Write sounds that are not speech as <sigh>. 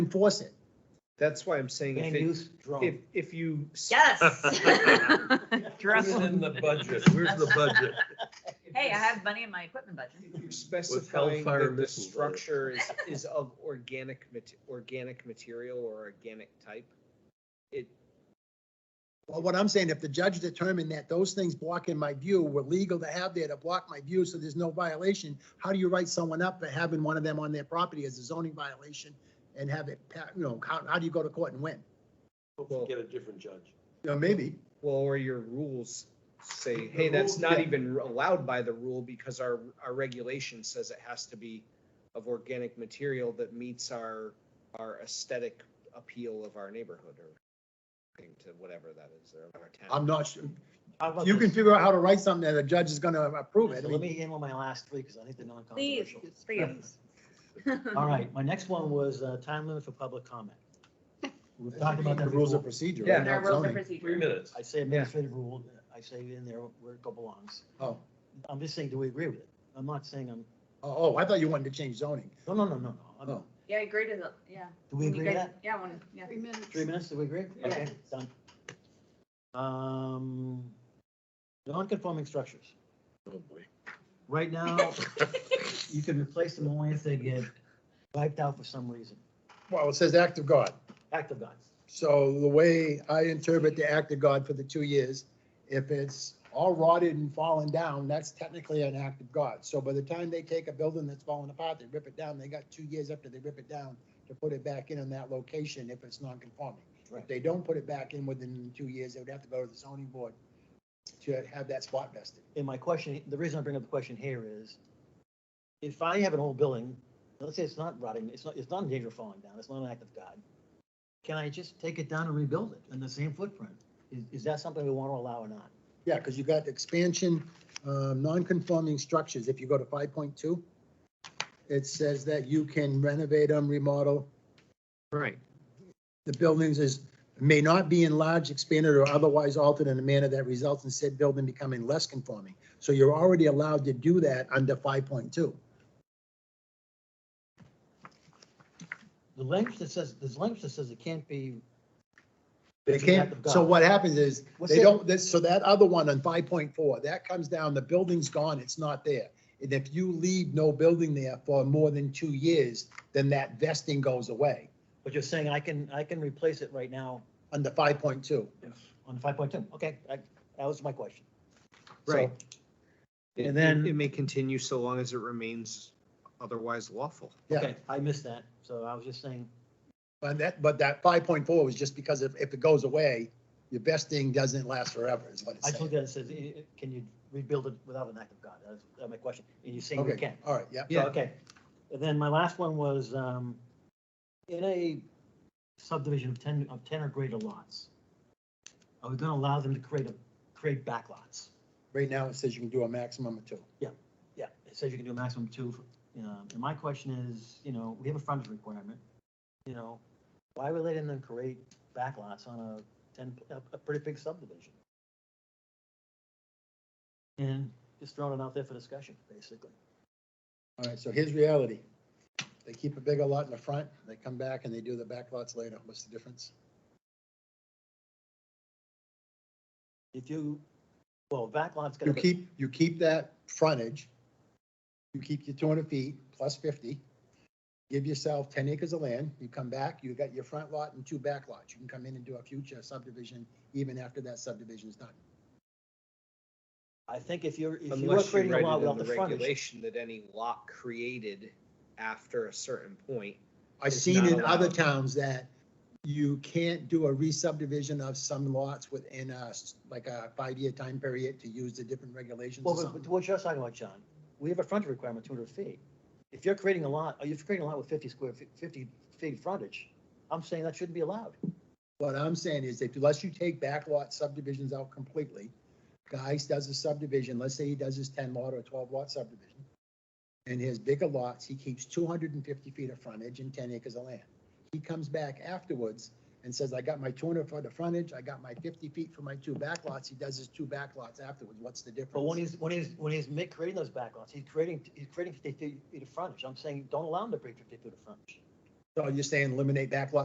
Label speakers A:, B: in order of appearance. A: enforce it.
B: That's why I'm saying if,
C: Land
B: it-
C: use
B: if,
C: drone.
B: if you.
D: Yes.
E: Where's in the budget, where's the budget?
D: Hey, I have money in my equipment budget.
B: If you're Specifying
E: hellfire
B: that the
E: missiles, right?
B: structure is,
D: <laughs>
B: is of organic, mate- organic material or organic type. It,
A: Well, what I'm saying, if the judge determined that those things blocking my view were legal to have there to block my view, so there's no violation, how do you write someone up for having one of them on their property as a zoning violation and have it, pa- you know, how, how do you go to court and win?
E: Hopefully get a different judge.
A: You know, maybe.
B: well, or your rules say,
E: The
B: hey, that's
E: rules,
B: not
E: yeah.
B: even allowed by the rule because our, our regulation says it has to be of organic material that meets our, our aesthetic appeal of our neighborhood or thing to whatever that is, or our town.
A: I'm not sure.
C: How about
A: You can
C: this?
A: figure out how to write something that a judge is gonna approve it. I
C: So Let
A: mean,
C: me handle my last three, because I think they're
D: Please,
C: non-controversial.
D: please. <laughs>
C: All right, my next one was uh, time limit for public comment. We've talked about that
A: The rules of
C: before.
A: procedure.
B: Yeah.
A: right?
D: There are
A: Not
D: rules of
A: zoning.
E: Three
D: procedure.
E: minutes.
C: I say administrative rule, I say in there where it belongs.
A: Oh,
C: I'm just saying, do we agree with it? I'm not saying I'm,
A: oh, oh, I thought you wanted to change zoning.
C: no, no, no, no, no. I'm-
A: Oh.
D: Yeah, I agree to the, yeah.
C: Do we
D: When you
C: agree with
D: guys-
C: that?
D: Yeah, one, yeah.
F: Three minutes.
C: Three minutes, do we agree?
D: Yeah.
C: Okay, done. Um, non-conforming structures.
E: Oh, boy.
C: Right now, <laughs> you can replace them only if they get wiped out for some reason,
A: Well, it says act of God.
C: act of God.
A: So the way I interpret the act of God for the two years, if it's all rotted and fallen down, that's technically an act of God. So by the time they take a building that's falling apart, they rip it down, they got two years after they rip it down to put it back in in that location if it's non-conforming. If
C: Right.
A: they don't put it back in within two years, they would have to go to the zoning board to have that spot vested.
C: And my question, the reason I bring up the question here is, if I have an old building, let's say it's not rotting, it's not, it's not in danger of falling down, it's not an act of God. Can I just take it down and rebuild it in the same footprint? Is, is that something we want to allow or not?
A: Yeah, because you got expansion, um, non-conforming structures, if you go to five point two, it says that you can renovate them, remodel.
C: Right.
A: The buildings is, may not be enlarged, expanded, or otherwise altered in a manner that results in said building becoming less conforming. So you're already allowed to do that under five point two.
C: The language that says, there's language that says it can't be.
A: They
C: It's an act
A: can't,
C: of
A: so
C: God.
A: what happens is,
C: What's
A: they
C: it-
A: don't, this, so that other one on five point four, that comes down, the building's gone, it's not there. And if you leave no building there for more than two years, then that vesting goes away
C: But you're saying I can, I can replace it right now
A: under five point two.
C: on five point two, okay, that, that was my question.
B: Right. It-
C: And
B: it-
C: then-
B: It may continue so long as it remains otherwise lawful.
A: Yeah.
C: Okay, I missed that, so I was just saying,
A: But that, but that five point four was just because if, if it goes away, your vesting doesn't last forever is what it's
C: I just looked
A: saying.
C: at it, it says, eh, eh, can you rebuild it without an act of God? That's that's my question, and you're saying you
A: Okay,
C: can.
A: All right, yeah.
C: So,
B: Yeah.
C: Okay, and then my last one was, um, in a subdivision of ten, of ten or greater lots, are we gonna allow them to create a, create backlots?
A: Right now it says you can do a maximum of two.
C: Yeah, it says you can do a maximum of two, um, and my question is, you know, we have a frontage requirement, you know, why are we letting them create backlots on a ten, a, a pretty big subdivision? And just throwing it out there for discussion, basically.
A: All right, so here's reality. They keep a bigger lot in the front, they come back and they do the back lots later. What's the difference?
C: If you, well, backlot's gonna
A: You
C: be.
A: keep, you keep that frontage, you keep your two hundred feet plus fifty, give yourself ten acres of land, you come back, you got your front lot and two back lots. You can come in and do a future subdivision even after that subdivision is done.
C: I think if you're, if you are
B: Unless you
C: creating a
B: write
C: law
B: it
C: without
B: in
C: the
B: the
C: frontage,
B: regulation that any lot created after a certain point.
A: I've
B: It's
A: seen
B: not
A: in other
B: allowed.
A: towns that you can't do a re-subdivision of some lots within a, s- like a five-year time period to use the different regulations
C: well,
A: or
C: but- but
A: something.
C: what you're talking about, John, we have a frontage requirement, two hundred feet. If you're creating a lot, or you're creating a lot with fifty square, feet- fifty feet frontage, I'm saying that shouldn't be allowed.
A: What I'm saying is that unless you take backlot subdivisions out completely, guys does a subdivision, let's say he does his ten lot or twelve lot subdivision. And his bigger lots, he keeps two hundred and fifty feet of frontage and ten acres of land. He comes back afterwards and says, I got my two hundred foot of frontage, I got my fifty feet for my two backlots. He does his two backlots afterwards. What's the difference?
C: But when he's, when he's, when he's ma- creating those backlots, he's creating, he's creating fifty feet of frontage. I'm saying, don't allow him to break fifty feet of frontage.
A: So you're saying eliminate backlot